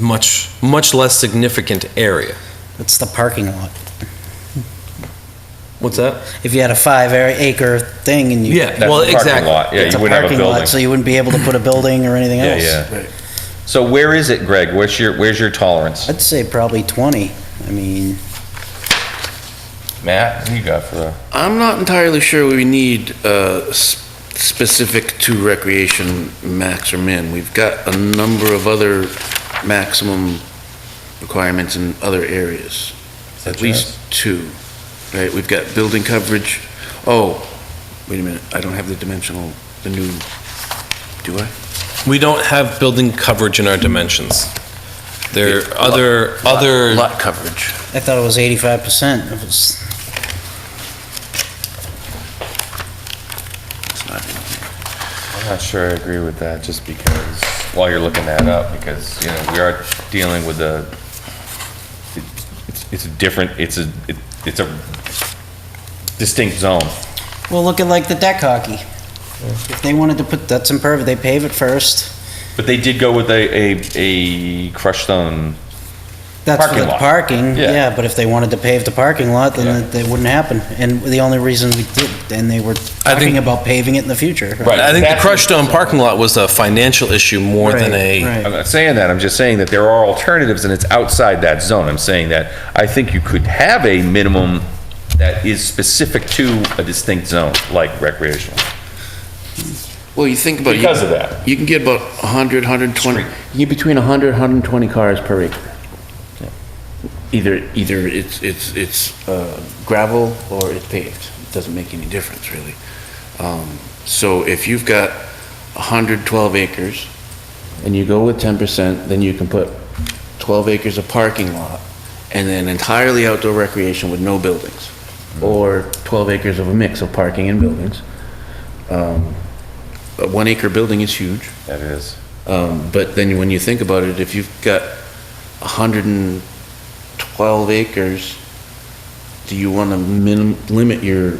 much, much less significant area. It's the parking lot. What's that? If you had a five ar- acre thing and you. Yeah, That's well, a parking exactly. lot. Yeah, It's you wouldn't have a parking lot, building. So you wouldn't be able to put a building or anything Yeah, else. yeah. So where is it, Greg? Where's your, where's your tolerance? I'd say probably 20. I mean, Matt, what you got for the? I'm not entirely sure we need uh, s- specific to recreation max or min. We've got a number of other maximum requirements in other areas. At least two, right? We've got building coverage. Oh, wait a minute, I don't have the dimensional, the new, do I? We don't have building coverage in our dimensions. There are other, Lot- other, Lot coverage. I thought it was 85%. It was, It's not in here. I'm not sure I agree with that, just because, while you're looking that up, because, you know, we are dealing with a, it's- it's a different, it's a, it- it's a distinct zone. well, look at like the deck hockey. If they wanted to put, that's impervious, they pave it first. But they did go with a, a, a crushed stone. That's for Parking the lot. parking, Yeah. yeah, but if they wanted to pave the parking lot, then Yeah. it- that wouldn't happen. And the only reason we did, and they were I think- talking about paving it in the future. I think the crushed stone parking lot was a financial issue more than Right, a, right. I'm not saying that, I'm just saying that there are alternatives and it's outside that zone. I'm saying that I think you could have a minimum that is specific to a distinct zone, like recreational. Well, you think about it. you- Because of that. You can get about 100, 120, you get between 100, 120 cars per acre. Either, either it's, it's, it's uh, gravel or it's paved. It Doesn't make any difference, really. Um, So if you've got 112 acres and you go with 10%, then you can put 12 acres of parking lot and then entirely outdoor recreation with no buildings. Or 12 acres of a mix of parking and buildings. Um, A one acre building is huge. That is. Um, But then when you think about it, if you've got 112 acres, do you want to minim, limit your,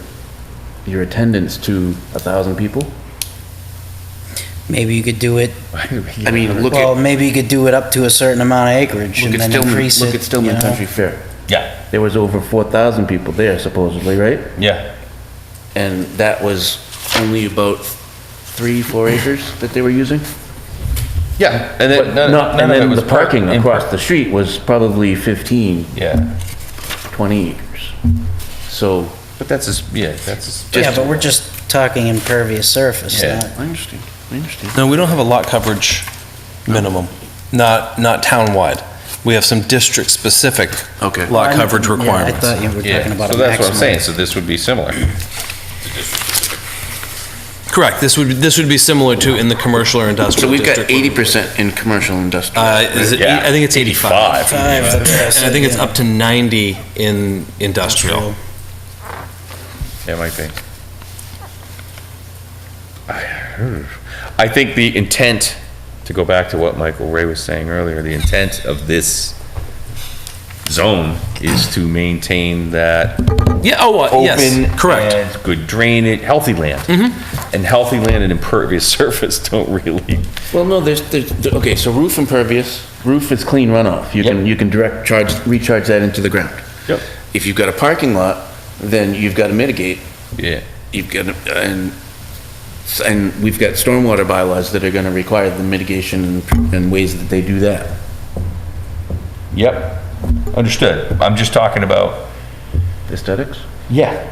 your attendance to 1,000 people? Maybe you could do it, I mean, look well, at, maybe you could do it up to a certain amount of acreage look and at then Stillman, increase it. look at you Stillman know? Country Fair. Yeah, There was over 4,000 people there supposedly, right? yeah. And that was only about three, four acres that they were using? Yeah, and But then, none not- none of And it then was. the parking parked in- across the street was probably 15, Yeah, 20 acres. So. but that's, a- yeah, that's. a- Yeah, but we're just talking impervious surface, Yeah. not I understand, I understand. no, we don't have a lot coverage minimum, not, not townwide. We have some district-specific Okay. lot I- coverage yeah, requirements. I thought you were Yeah, talking about a So that's what I'm saying, maximum. so this would be similar. Correct, this would, be- this would be similar to in the commercial or So industrial we've got district. eighty percent in commercial industrial. Uh, is it, eight- I think it's 85. Five, that's what I And I think it's said, up to 90 in industrial. Yeah, it might be. hmm. I think the intent, to go back to what Michael Ray was saying earlier, the intent of this zone is to maintain that Yeah, oh, uh, open. yes, correct. Mm-hmm. and Good drainage, healthy land. And healthy land and impervious surface don't really Well, no, there's, there's, there- okay, so roof impervious, roof is clean runoff. You can, Yep. you can direct charge, recharge that into the ground. Yep. If you've got a parking lot, then you've got to mitigate, Yeah, you've got, to- and, and we've got stormwater bylaws that are going to require the mitigation and- and ways that they do that. yep, understood. I'm just talking about, Aesthetics? yeah.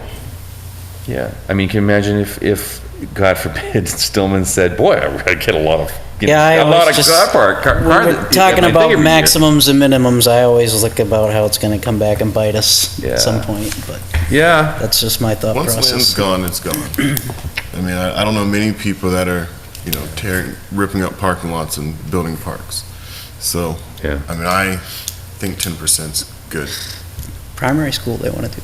Yeah, I mean, can you imagine if, if, God forbid, Stillman said, boy, I get a lot of, you know, Yeah, I a lot of always just, car park, car. we car were that- talking I think every about year. maximums and minimums, I always look about how it's gonna come back and bite us Yeah. at some point, but Yeah, that's just my thought Once land's process. gone, it's gone. I mean, I, I don't know many people that are, you know, tearing, ripping up parking lots and building parks. So, Yeah. I mean, I think ten percent's good. Primary school, they wanna do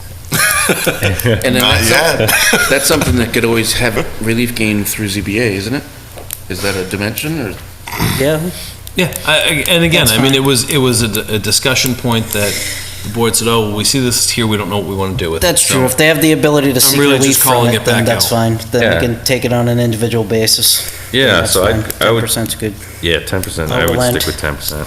And then Not that's, some- that's something that could always have relief gain through ZBA, isn't it? Is that a dimension or? that. Yeah, Yeah, I- I- and again, That's I mean, fine. it was, it was a d- a discussion point that the board said, oh, we see this here, we don't know what we want to do with it. that's So- true. If they have the ability to seek really just relief from calling it, it then back that's out. fine. Then Yeah. we can take it on an individual basis. Yeah, so I- I would- Ten percent's good. yeah, ten percent, I would Overland. stick ten percent.